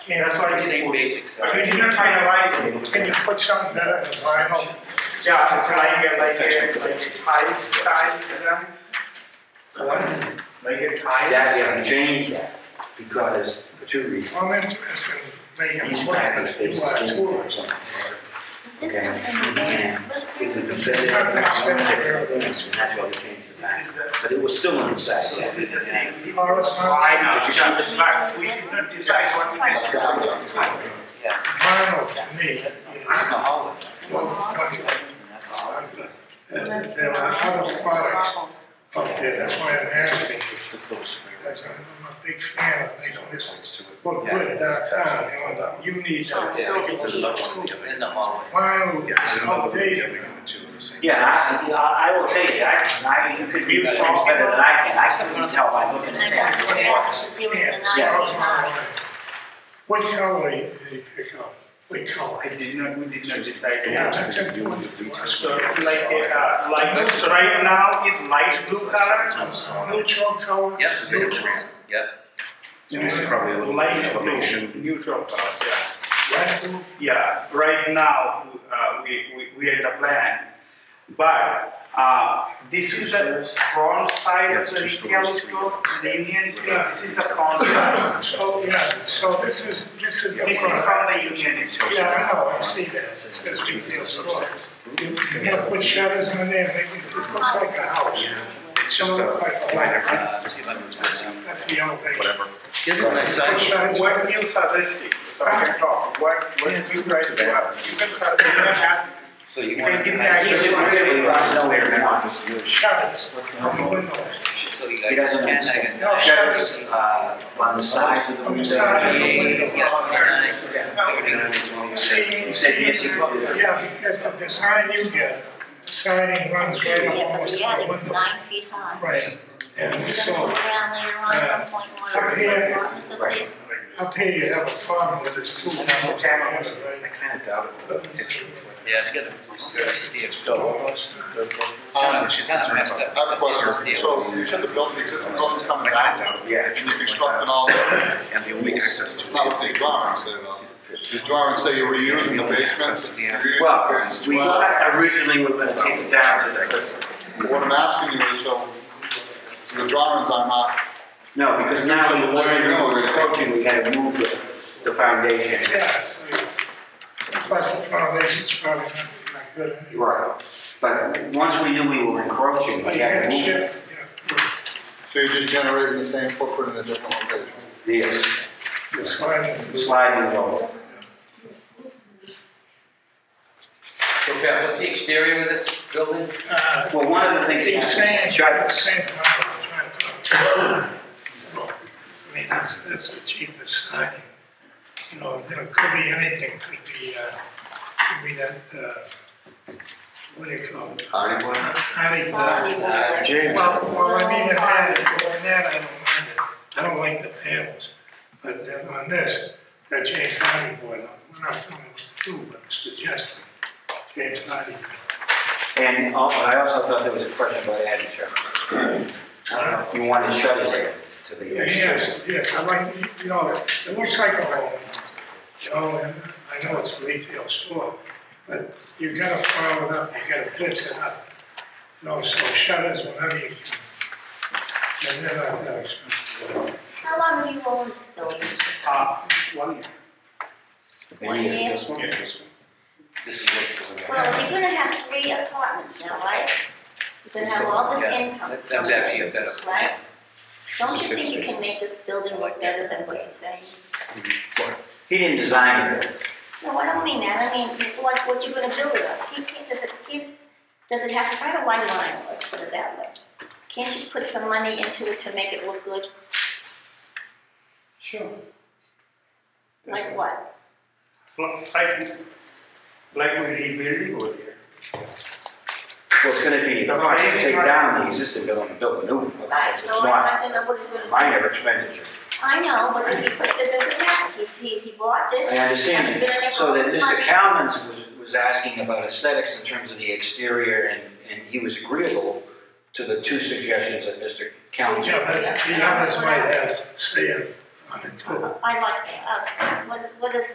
Can That's why you say you, basic stuff. Can you- You're trying to lie to me. can you put something better in the vinyl? Yeah, because I get like here, I ties to them. Like your ties. That, we have to change that, because, for two reasons. I'm interested in making These it parking work. spaces You are are too. or something. Is this stuff in the van? What It was is it? considered as an outside business, and that's why we changed the back. But it was still an inside. You are responsible. I know, shut the fuck. We can decide what we Quite a lot of stuff. Vinyl to me is one bundle. And There are other products out there, that's why I'm asking. Because I'm I'm a big fan of making this look good downtown, you know, you need that. In the hallway. Vinyl is outdated. Yeah, I, I I will tell you, I, I, you could, you talk better than I can, I couldn't tell by looking I at know, that. so that you see what's in that. What color did you pick up? What color? I did not, we did not decide. Yeah, that's important to us. So like, uh, like, right now is light blue color. Neutral color. Yep. Neutral. Yep. Probably a little. Light blue, neutral color, yeah. Light blue. Yeah, right now, uh, we, we, we had the plan, but, uh, this is the front side of the retail store, the Union Store, this is the front side. So, yeah, so this is, this is the This is front. from the Union Store. Yeah, I know, I see that, it says retail store. You gotta put shutters in there, make it look like a house. It's just a, Like a minor car. criticism, That's the only thing. whatever. Here's a nice side. Put shutters in What you suggested, so I can talk, what, what you guys want, you can suggest, you can have, So you you want can give me to, ideas. Nowhere now. Shutters on the windows. so you He got doesn't ten, I understand. No, got Shutters, uh, on the sides of the On the windows. side of the twenty-eight, window. you got twenty-nine, thirty. You See, you see, yeah, because the design you get, siding runs right up Yeah, but almost the to the attic is window. nine feet high. Right, and It's gonna so, go down later on at some point, when Right. everything runs up there. up here you have a problem with this two panels together, I right? kind of doubt it. Yeah, it's good. Um, She's Kinda concerned messed about that. I have a question. Steel. So you said the building, existing building's coming I kind down, of doubt it. Yeah. and you construct all, I And the only access to. would say drawings, say, though. uh, The drawings say you're reusing the basement, you're reusing Well, the basement. we Well, thought originally we were gonna take it down to the, What I'm asking you is, so the drawings are not, no, because now So the what way do you do? we're approaching, we gotta move the, the foundation. Yeah, so, plus the foundation's probably not not good anyway. Right, but once we knew we were encroaching, But we you had to can move it. shift, yeah, so you're just generating the same footprint in a different location. Yes, the sliding is- sliding door. So Pat, what's the exterior of this building? Uh, Well, one of the things that He's saying, happens, trying shutters. to say, I'm trying to talk. I mean, that's, that's the cheapest siding. You know, you know, could be anything, could be, uh, could be that, uh, what do you call it? Hardy board? Hardy board. Quality wood. James. Well, well, I mean, on that, on that, I don't mind it. I don't like the panels. But then on this, that James Hardy board, we're not telling what to do, but suggesting James Hardy. And al- I also thought there was a question about adding shutters. I don't know if you wanted shutters there to the. Yes, yes, I like, you know, it looks like a home, you know, and I know it's a retail store, but you gotta file it up, you gotta blitz it up. You know, so shutters, whatever you can. And they're not that expensive. How long have you owned this building? Uh, one year. One year? This one, this one. This is what. Well, you're gonna have three apartments now, right? You're gonna have all this Yeah, income, that- That's actually a better. right? Don't you Six think you spaces. can make this building look better than what you're saying? He didn't design it. No, I don't mean that, I mean, what, what you're gonna build it up, you can't, does it, can't, does it have to find a white line, let's put it that way? Can't you put some money into it to make it look good, Sure. like what? Like, like we rebuilding over here. Well, it's gonna be, oh, I should take down the existing building and build a new one. Right, It's so I not want to know what he's gonna do. minor expenditure. I know, but if he puts, it doesn't matter, he's, he, he bought this, I and understand he's gonna that. make So all that this Mr. money. Calman's was, was asking about aesthetics in terms of the exterior and, and he was agreeable to the two suggestions that Mr. Calman. Yeah, but the others might have, say, a on the top. I like that. Uh, what, what is